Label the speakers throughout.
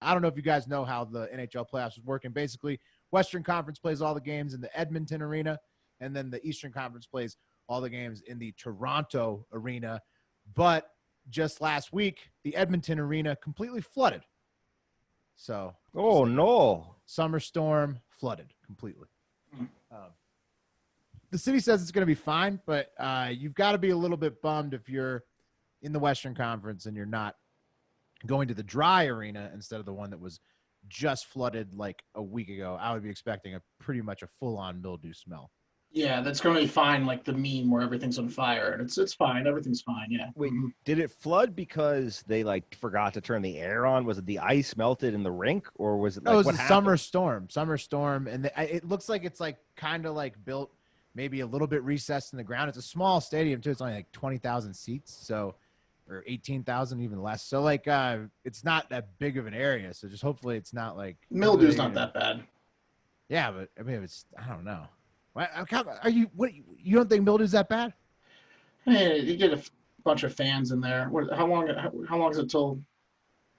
Speaker 1: I don't know if you guys know how the NHL playoffs was working. Basically, Western Conference plays all the games in the Edmonton Arena, and then the Eastern Conference plays all the games in the Toronto Arena. But just last week, the Edmonton Arena completely flooded. So
Speaker 2: Oh no!
Speaker 1: summer storm flooded completely. Um, the city says it's going to be fine, but uh, you've got to be a little bit bummed if you're in the Western Conference and you're not going to the dry arena instead of the one that was just flooded like a week ago. I would be expecting a pretty much a full-on mildew smell.
Speaker 3: Yeah, that's going to be fine. Like the meme where everything's on fire, and it's it's fine. Everything's fine. Yeah.
Speaker 2: Wait, did it flood because they like forgot to turn the air on? Was it the ice melted in the rink, or was it
Speaker 1: No,
Speaker 2: like
Speaker 1: it was
Speaker 2: what
Speaker 1: a
Speaker 2: happened?
Speaker 1: summer storm. Summer storm, and the, I- it looks like it's like kind of like built maybe a little bit recessed in the ground. It's a small stadium too. It's only like twenty thousand seats, so or eighteen thousand even less. So like uh, it's not that big of an area. So just hopefully it's not like
Speaker 3: Mildew's not that bad.
Speaker 1: Yeah, but I mean if it's I don't know. Why- how come- Are you what? You don't think mildew's that bad?
Speaker 3: Hey, you get a f- bunch of fans in there. What, how long? How, how long is it till?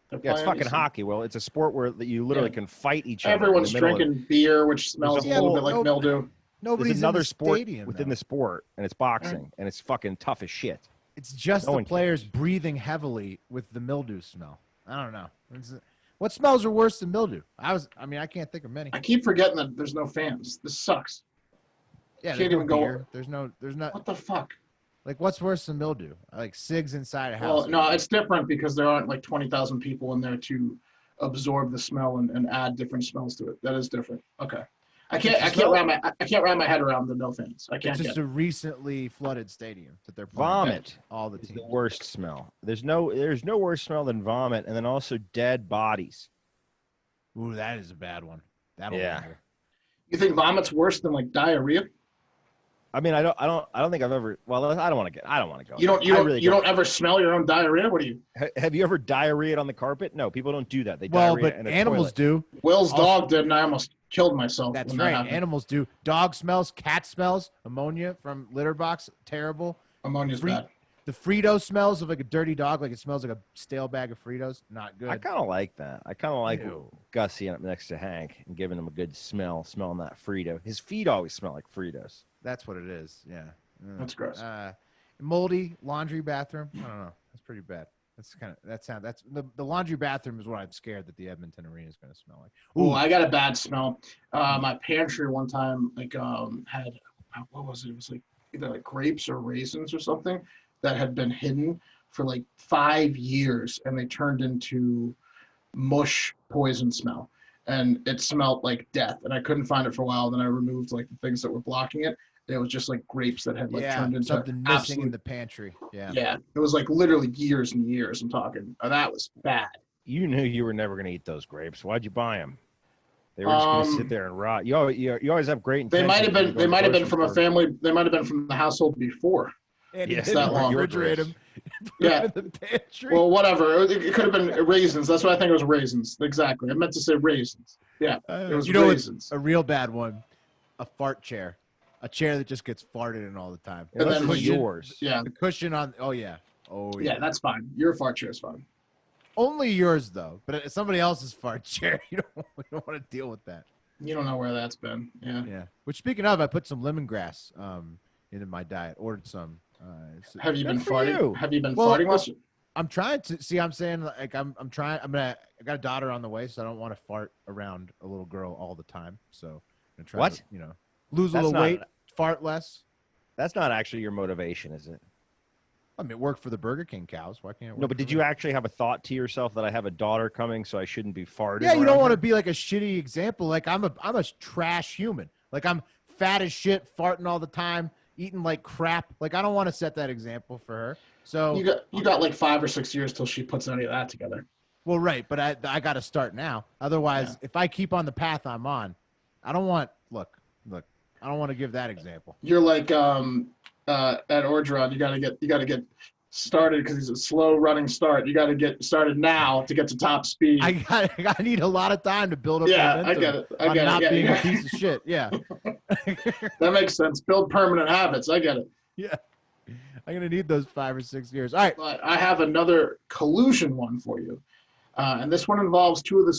Speaker 3: they're
Speaker 2: Yeah, it's
Speaker 3: playing?
Speaker 2: fucking hockey. Well, it's a sport where that you literally
Speaker 3: Yeah.
Speaker 2: can fight each other. in the
Speaker 3: Everyone's
Speaker 2: middle of-
Speaker 3: drinking beer, which smells a
Speaker 2: a
Speaker 3: little
Speaker 2: whole-
Speaker 3: bit like
Speaker 1: no-
Speaker 3: mildew.
Speaker 1: Nobody's
Speaker 2: There's another
Speaker 1: in the
Speaker 2: sport
Speaker 1: stadium,
Speaker 2: within
Speaker 1: though.
Speaker 2: the sport, and it's boxing, and it's fucking tough as shit.
Speaker 1: It's just
Speaker 2: No
Speaker 1: the
Speaker 2: one cares.
Speaker 1: players breathing heavily with the mildew smell. I don't know. It's- What smells are worse than mildew? I was. I mean, I can't think of many.
Speaker 3: I keep forgetting that there's no fans. This sucks.
Speaker 1: Yeah,
Speaker 3: can't
Speaker 1: there's no
Speaker 3: even go-
Speaker 1: beer. There's no. There's not.
Speaker 3: What the fuck?
Speaker 1: Like, what's worse than mildew? Like cigs inside a house.
Speaker 3: Well, no, it's different because there aren't like twenty thousand people in there to absorb the smell and, and add different smells to it. That is different. Okay. I can't. I can't wrap my. I- I can't wrap my head around the no fans. I can't
Speaker 1: It's
Speaker 3: get.
Speaker 1: just a recently flooded stadium that they're playing.
Speaker 2: Vomit
Speaker 1: All the
Speaker 2: is
Speaker 1: teams.
Speaker 2: the worst smell. There's no there's no worse smell than vomit, and then also dead bodies.
Speaker 1: Ooh, that is a bad one. That'll
Speaker 2: Yeah.
Speaker 1: linger.
Speaker 3: You think vomit's worse than like diarrhea?
Speaker 2: I mean, I don't I don't I don't think I've ever. Well, I don't want to get. I don't want to go.
Speaker 3: You don't. You
Speaker 2: I
Speaker 3: don't.
Speaker 2: really
Speaker 3: you don't ever smell your own diarrhea. What do you?
Speaker 2: Ha- Have you ever diarrhea on the carpet? No, people don't do that. They
Speaker 1: Well,
Speaker 2: diarrhea
Speaker 1: but
Speaker 2: in a
Speaker 1: animals
Speaker 2: toilet.
Speaker 1: do.
Speaker 3: Will's
Speaker 1: Also-
Speaker 3: dog did, and I almost killed myself.
Speaker 1: That's
Speaker 3: when that
Speaker 1: right.
Speaker 3: happened.
Speaker 1: Animals do. Dog smells, cat smells, ammonia from litter box, terrible.
Speaker 3: Ammonia's
Speaker 1: Free-
Speaker 3: bad.
Speaker 1: The Frito smells of like a dirty dog, like it smells like a stale bag of Fritos. Not good.
Speaker 2: I kind of like that. I kind of like
Speaker 1: Ew.
Speaker 2: Gussie up next to Hank and giving him a good smell, smelling that Frito. His feet always smell like Fritos.
Speaker 1: That's what it is. Yeah. Mm.
Speaker 3: That's gross.
Speaker 1: Uh, moldy laundry bathroom. I don't know. That's pretty bad. That's kind of that sound. That's the, the laundry bathroom is what I'm scared that the Edmonton Arena is going to smell like.
Speaker 3: Ooh, I got a bad smell. Uh, my pantry one time like um had uh, what was it? It was like either like grapes or raisins or something that had been hidden for like five years, and they turned into mush poison smell, and it smelled like death. And I couldn't find it for a while. Then I removed like the things that were blocking it. And it was just like grapes that had like
Speaker 1: yeah,
Speaker 3: turned into
Speaker 1: something missing in
Speaker 3: absolute-
Speaker 1: the pantry. Yeah.
Speaker 3: yeah, it was like literally years and years. I'm talking. Oh, that was bad.
Speaker 2: You knew you were never going to eat those grapes. Why'd you buy them? They were just going to
Speaker 3: Um,
Speaker 2: sit there and rot. You always, you, you always have great
Speaker 3: They
Speaker 2: intentions.
Speaker 3: might
Speaker 2: when
Speaker 3: have been.
Speaker 2: you go
Speaker 3: They
Speaker 2: to
Speaker 3: might have been
Speaker 2: grocery
Speaker 3: from a
Speaker 2: store.
Speaker 3: family. They might have been from the household before.
Speaker 1: And
Speaker 2: Yeah,
Speaker 1: he
Speaker 3: It's that
Speaker 1: didn't
Speaker 3: long.
Speaker 1: refrigerate them.
Speaker 3: Yeah.
Speaker 1: in the pantry.
Speaker 3: Well, whatever. It, it could have been raisins. That's what I think it was raisins. Exactly. I meant to say raisins. It was
Speaker 1: Uh, you know, it's
Speaker 3: raisins.
Speaker 1: a real bad one. A fart chair, a chair that just gets farted in all the time.
Speaker 2: Yeah,
Speaker 3: and
Speaker 2: this
Speaker 3: then
Speaker 2: was
Speaker 3: when you-
Speaker 2: yours.
Speaker 3: yeah.
Speaker 1: The cushion on. Oh yeah. Oh yeah.
Speaker 3: Yeah, that's fine. Your fart chair is fine.
Speaker 1: Only yours though, but it's somebody else's fart chair. You don't, you don't want to deal with that.
Speaker 3: You don't know where that's been. Yeah.
Speaker 1: Yeah. Which speaking of, I put some lemongrass um into my diet. Ordered some. Uh, so-
Speaker 3: Have you
Speaker 2: Good
Speaker 3: been
Speaker 2: for
Speaker 3: farting?
Speaker 2: you.
Speaker 3: Have you been
Speaker 1: Well,
Speaker 3: farting last?
Speaker 1: I'm trying to see. I'm saying like I'm I'm trying. I'm gonna. I got a daughter on the way, so I don't want to fart around a little girl all the time. So I'm gonna try.
Speaker 2: What?
Speaker 1: To, you know, lose a
Speaker 2: That's
Speaker 1: little
Speaker 2: not-
Speaker 1: weight, fart less.
Speaker 2: That's not actually your motivation, is it?
Speaker 1: I mean, it worked for the Burger King cows. Why can't it? work
Speaker 2: No, but
Speaker 1: for
Speaker 2: did
Speaker 1: me?
Speaker 2: you actually have a thought to yourself that I have a daughter coming, so I shouldn't be farting?
Speaker 1: Yeah, you don't want to
Speaker 2: to.
Speaker 1: be like a shitty example. Like I'm a I'm a trash human. Like I'm fat as shit, farting all the time, eating like crap. Like I don't want to set that example for her. So
Speaker 3: You got you got like five or six years till she puts any of that together.
Speaker 1: well, right, but I I got to start now. Otherwise, if I keep on the path I'm on, I don't want look look. I don't want to give that example.
Speaker 3: You're like um uh at Orgeron. You got to get you got to get started because it's a slow running start. You got to get started now to get to top speed.
Speaker 1: I got I need a lot of time to build up.
Speaker 3: yeah, I
Speaker 1: momentum
Speaker 3: get it. I
Speaker 1: on
Speaker 3: get
Speaker 1: not
Speaker 3: it. Yeah,
Speaker 1: being
Speaker 3: yeah.
Speaker 1: a piece of shit. Yeah,
Speaker 3: That makes sense. Build permanent habits. I get it.
Speaker 1: I'm gonna need those five or six years. All right,
Speaker 3: But I have another collusion one for you. Uh, and this one involves two of the